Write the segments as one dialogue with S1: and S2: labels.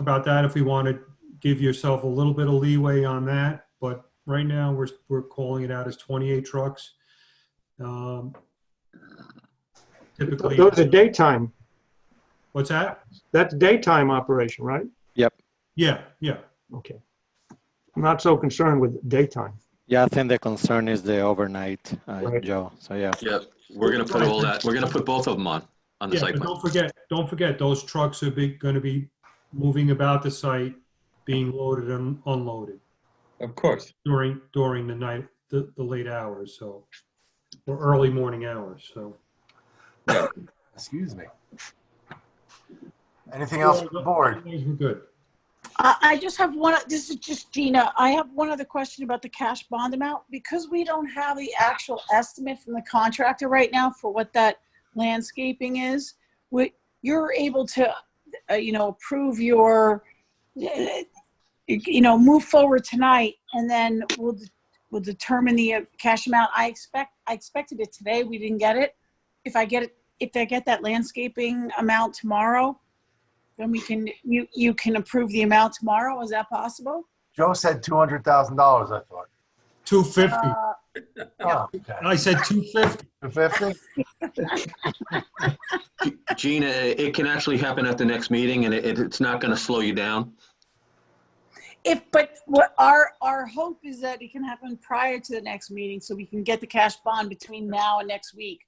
S1: about that if we want to give yourself a little bit of leeway on that, but right now, we're, we're calling it out as 28 trucks. Um, Typically,
S2: Those are daytime.
S1: what's that?
S2: That's daytime operation, right?
S1: Yeah, yeah.
S2: Okay. I'm not so concerned with daytime.
S3: Yeah, I think the concern is the overnight, uh,
S2: Right.
S3: Joe. So yeah,
S4: Yep, we're gonna put all that, we're gonna put both of them on, on the
S1: Yeah,
S4: site
S1: but
S4: plan.
S1: don't forget, don't forget, those trucks are be, gonna be moving about the site, being loaded and unloaded
S5: Of course.
S1: during, during the night, the, the late hours, so, or early morning hours, so.
S6: Excuse me. Anything else from the board?
S1: Things were good.
S7: I I just have one, this is just Gina. I have one other question about the cash bond amount. Because we don't have the actual estimate from the contractor right now for what that landscaping is, we- you're able to, uh, you know, approve your, eh, you know, move forward tonight and then we'll, de- we'll determine the uh, cash amount. I expect, I expected it today. We didn't get it. If I get it, if I get that landscaping amount tomorrow, then we can, you, you can approve the amount tomorrow, is that possible?
S6: Joe said two hundred thousand dollars, I thought.
S1: Two fifty,
S7: Uh,
S6: Oh, okay.
S1: I said two fifty,
S6: Two fifty?
S4: Gina, it it can actually happen at the next meeting and it, it- it's not gonna slow you down.
S7: If, but what our, our hope is that it can happen prior to the next meeting, so we can get the cash bond between now and next week.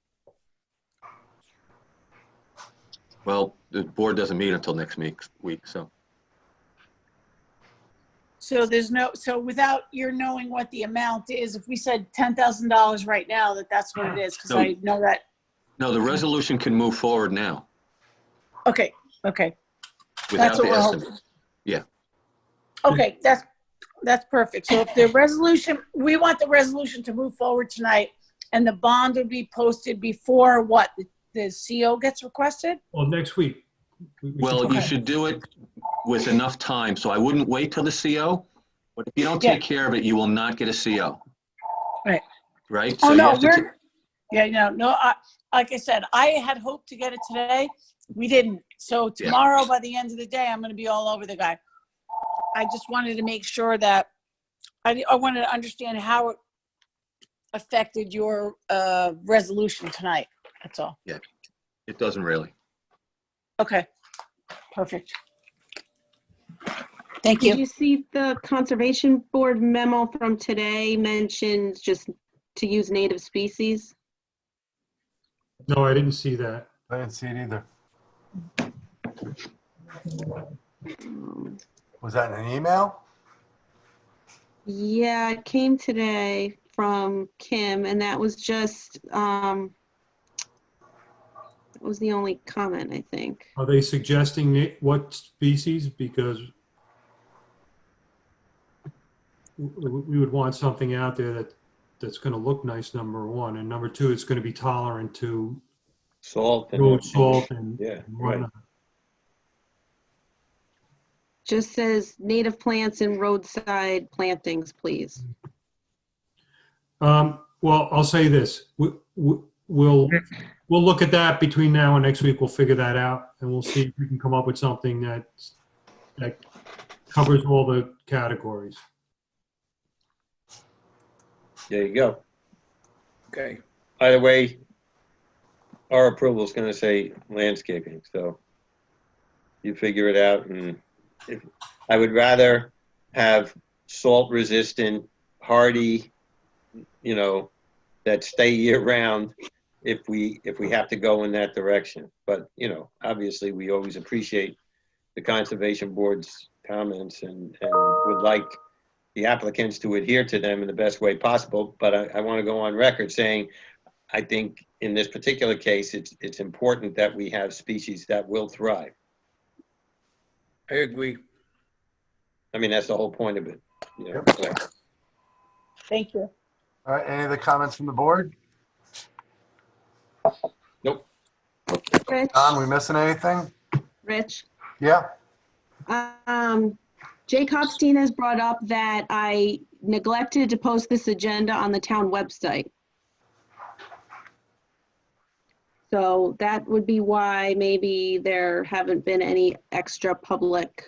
S4: Well, the board doesn't meet until next meek- week, so.
S7: So there's no, so without your knowing what the amount is, if we said ten thousand dollars right now, that that's what it is, because I know that,
S4: No, the resolution can move forward now
S7: okay, okay,
S4: without
S7: That's
S4: the
S7: what we're
S4: estimate.
S7: okay, that's, that's perfect. So if the resolution, we want the resolution to move forward tonight, and the bond would be posted before what, the- the CO gets requested?
S1: well, Oh, next week. We- we
S4: Well,
S1: should-
S4: you should do it with enough time, so I wouldn't wait till the CO. But if you don't
S7: Yeah.
S4: take care of it, you will not get a CO.
S7: Right.
S4: Right? So
S7: Oh,
S4: you
S7: no,
S4: have to
S7: we're, yeah, no, no, I, like I said, I had hoped to get it today. We didn't. So
S4: Yeah.
S7: tomorrow, by the end of the day, I'm gonna be all over the guy. I just wanted to make sure that, I, I wanted to understand how it affected your, uh, resolution tonight. That's all.
S4: ta- It doesn't really.
S7: Okay. Perfect. Thank
S8: Did
S7: you.
S8: you see the Conservation Board memo from today mentioned just to use native species?
S1: No, I didn't see that.
S6: I didn't see it either. Was that in an email?
S8: Yeah, it came today from Kim, and that was just, um, that was the only comment, I think.
S1: Are they suggesting it- what species? Because we, we would want something out there that, that's gonna look nice, number one, and number two, it's gonna be tolerant to
S5: Salt. and-
S1: road salt and
S5: Yeah, right.
S1: whatnot.
S8: Just says native plants and roadside plantings, please.
S1: Um, well, I'll say this, we, we, we'll, we'll look at that between now and next week, we'll figure that out, and we'll see if we can come up with something that, that covers all the categories.
S5: There you go. Okay. By the way, our approval is gonna say landscaping, so you figure it out and if, I would rather have salt resistant, hardy, you know, that stay year round if we, if we have to go in that direction. But, you know, obviously, we always appreciate the Conservation Board's comments and, and would like the applicants to adhere to them in the best way possible, but I, I want to go on record saying, I think in this particular case, it's, it's important that we have species that will thrive.
S9: I agree.
S5: I mean, that's the whole point of it. you know, so.
S7: Thank you.
S6: All right, any other comments from the board?
S8: Rich,
S6: Tom, we missing anything?
S8: Rich?
S6: Yeah,
S8: Um, Jay Copstein has brought up that I neglected to post this agenda on the town website. So that would be why maybe there haven't been any extra public